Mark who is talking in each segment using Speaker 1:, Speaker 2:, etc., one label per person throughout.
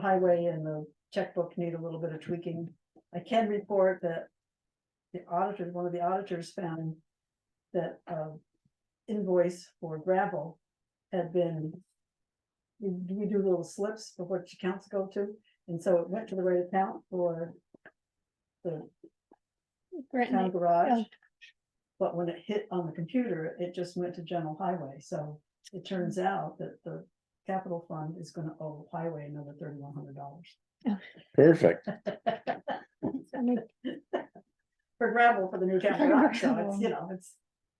Speaker 1: highway and the checkbook need a little bit of tweaking. I can report that. The auditor, one of the auditors found that um invoice for gravel had been. We, we do little slips for what accounts go to, and so it went to the right account for the
Speaker 2: Grant
Speaker 1: town
Speaker 2: Knight.
Speaker 1: garage.
Speaker 2: Oh.
Speaker 1: But when it hit on the computer, it just went to general highway, so it turns out that the capital fund is gonna owe highway another thirty-one hundred dollars.
Speaker 3: Perfect.
Speaker 2: I mean,
Speaker 1: For gravel for the new town garage, so it's, you know, it's,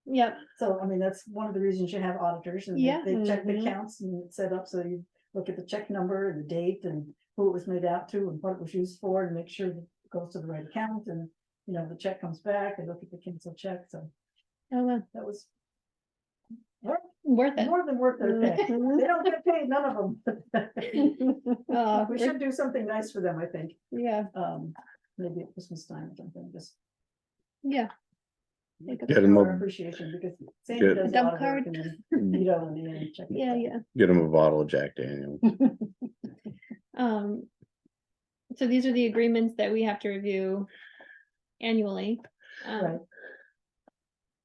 Speaker 2: Yep,
Speaker 1: so I mean, that's one of the reasons you have auditors and they-
Speaker 2: Yeah.
Speaker 1: they check the
Speaker 2: Mhm.
Speaker 1: accounts and it's set up, so you look at the check number and the date and who it was made out to and what it was used for and make sure that it goes to the right account and, you know, the check comes back, they look at the canceled check, so
Speaker 2: oh, well,
Speaker 1: that was
Speaker 2: worth it.
Speaker 1: More than worth their pay. They
Speaker 2: Mhm.
Speaker 1: don't get paid, none of them.
Speaker 2: Uh,
Speaker 1: We
Speaker 2: it-
Speaker 1: should do something nice for them, I think,
Speaker 2: Yeah,
Speaker 1: um, maybe at Christmas time or something, just.
Speaker 2: yeah.
Speaker 1: make
Speaker 2: Get
Speaker 1: it
Speaker 3: them
Speaker 1: our
Speaker 3: a-
Speaker 1: Appreciation because. Sandy
Speaker 3: Get-
Speaker 1: does a
Speaker 2: Dump
Speaker 1: lot of work
Speaker 2: card.
Speaker 1: and then You know, and then check it
Speaker 2: Yeah,
Speaker 1: out.
Speaker 2: yeah.
Speaker 3: Get him a bottle of Jack Daniel.
Speaker 2: Um. So these are the agreements that we have to review annually. Um,
Speaker 1: Right.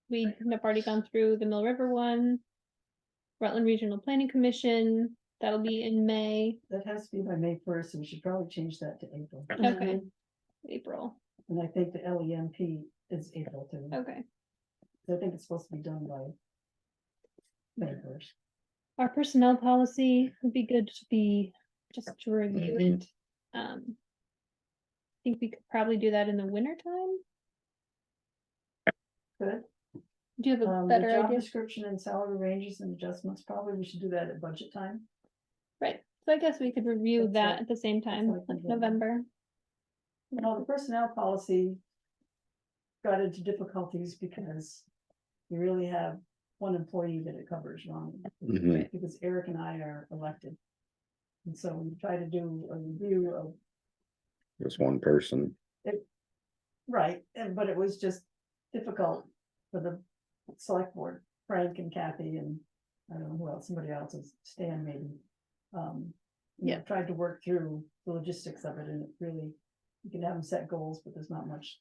Speaker 2: We have already gone through the Mill River one. Rutland Regional Planning Commission, that'll be in May,
Speaker 1: That has to be by May first, and we should probably change that to April.
Speaker 2: okay, April,
Speaker 1: And I think the L E M P is April too.
Speaker 2: okay.
Speaker 1: I think it's supposed to be done by. May first.
Speaker 2: Our personnel policy would be good to be, just to review it.
Speaker 1: Mm-hmm.
Speaker 2: Um. I Think we could probably do that in the winter time,
Speaker 1: Good.
Speaker 2: do you have a
Speaker 1: Um, the
Speaker 2: better
Speaker 1: job
Speaker 2: idea?
Speaker 1: description and salary ranges and adjustments, probably we should do that at budget time.
Speaker 2: Right, so I guess we could review
Speaker 1: That's
Speaker 2: that
Speaker 1: what-
Speaker 2: at the same
Speaker 1: what
Speaker 2: time,
Speaker 1: I
Speaker 2: like
Speaker 1: can do.
Speaker 2: November.
Speaker 1: Well, the personnel policy. Got into difficulties because you really have one employee that it covers wrong,
Speaker 3: Mhm.
Speaker 1: because Eric and I are elected. And so we try to do a review of,
Speaker 3: Just one person.
Speaker 1: right, and but it was just difficult for the select board, Frank and Kathy and. I don't know who else, somebody else is Stan maybe. Um, you know,
Speaker 2: Yeah.
Speaker 1: tried to work through the logistics of it and it really, you can have them set goals, but there's not much.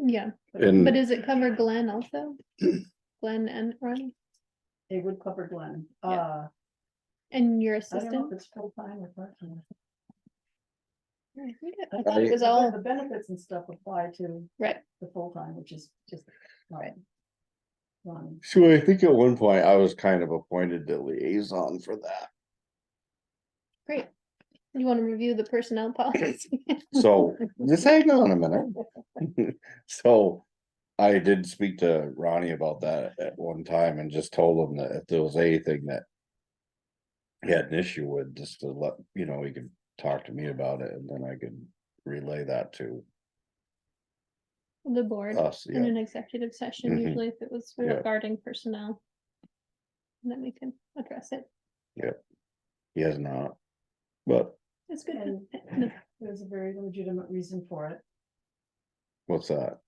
Speaker 2: Yeah,
Speaker 3: And-
Speaker 2: but does it cover Glenn also? Glenn and Ronnie,
Speaker 1: They would cover Glenn,
Speaker 2: Yeah.
Speaker 1: uh.
Speaker 2: and your
Speaker 1: I don't know if
Speaker 2: assistant?
Speaker 1: it's full time or part time.
Speaker 2: I think it- I thought it was all,
Speaker 1: The benefits and stuff apply to
Speaker 2: right,
Speaker 1: the full time, which is just. Right. One,
Speaker 3: So I think at one point I was kind of appointed the liaison for that.
Speaker 2: great. You wanna review the personnel policy?
Speaker 3: So just hang on a minute. So I did speak to Ronnie about that at one time and just told him that if there was anything that he had an issue with, just to let, you know, he could talk to me about it and then I could relay that to
Speaker 2: The board
Speaker 3: us.
Speaker 2: in
Speaker 3: Yeah,
Speaker 2: an executive session,
Speaker 3: Mhm.
Speaker 2: usually if it was
Speaker 3: Yeah.
Speaker 2: regarding personnel. And then we can address it,
Speaker 3: he has not. But
Speaker 2: it's good.
Speaker 1: and
Speaker 2: to- no,
Speaker 1: there's a very legitimate reason for it.
Speaker 3: what's that?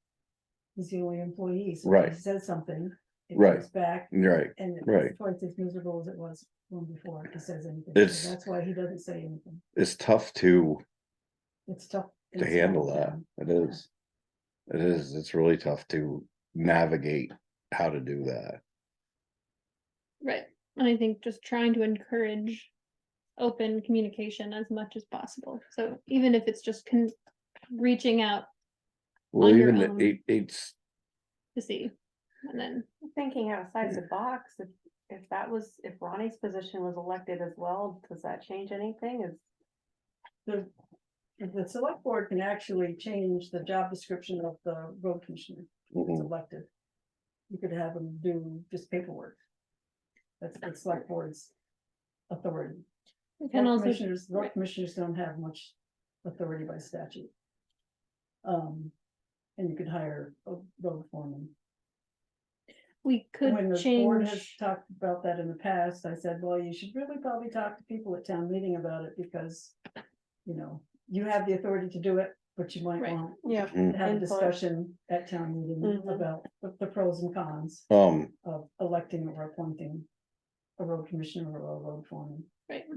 Speaker 1: He's the only employee, so if
Speaker 3: Right.
Speaker 1: he says something. it
Speaker 3: Right.
Speaker 1: comes Back
Speaker 3: Right.
Speaker 1: and it's
Speaker 3: Right.
Speaker 1: twice as miserable as it was when before if he says anything.
Speaker 3: It's-
Speaker 1: So That's why he doesn't say anything.
Speaker 3: It's tough to.
Speaker 1: It's tough.
Speaker 3: to
Speaker 1: it's tough
Speaker 3: handle
Speaker 1: for
Speaker 3: that.
Speaker 1: him.
Speaker 3: It is. It is, it's really tough to navigate how to do that.
Speaker 2: Right, and I think just trying to encourage open communication as much as possible, so even if it's just con- reaching out
Speaker 3: Well,
Speaker 2: On your
Speaker 3: even
Speaker 2: own.
Speaker 3: it, it's,
Speaker 2: to see, and then,
Speaker 4: Thinking outside the box, if, if that was, if Ronnie's position was elected as well, does that change anything? Is,
Speaker 1: The, the select board can actually change the job description of the road commissioner. it's
Speaker 3: mhm,
Speaker 1: elected. You could have them do just paperwork. That's, that's select board's authority.
Speaker 2: we can
Speaker 1: Road
Speaker 2: also,
Speaker 1: commissioners, road
Speaker 2: right.
Speaker 1: commissioners don't have much authority by statute. Um, and you could hire a road foreman.
Speaker 2: we
Speaker 1: When
Speaker 2: could
Speaker 1: the board has
Speaker 2: change,
Speaker 1: talked about that in the past, I said, well, you should really probably talk to people at town meeting about it because, you know, you have the authority to do it, but you might
Speaker 2: Right. Mm-hmm.
Speaker 1: want
Speaker 4: yeah,
Speaker 1: to have a
Speaker 4: Input.
Speaker 1: discussion at town meeting
Speaker 4: Mhm.
Speaker 1: about the- the pros and cons
Speaker 3: um,
Speaker 1: of electing or appointing a road commissioner or a road foreman.
Speaker 2: right,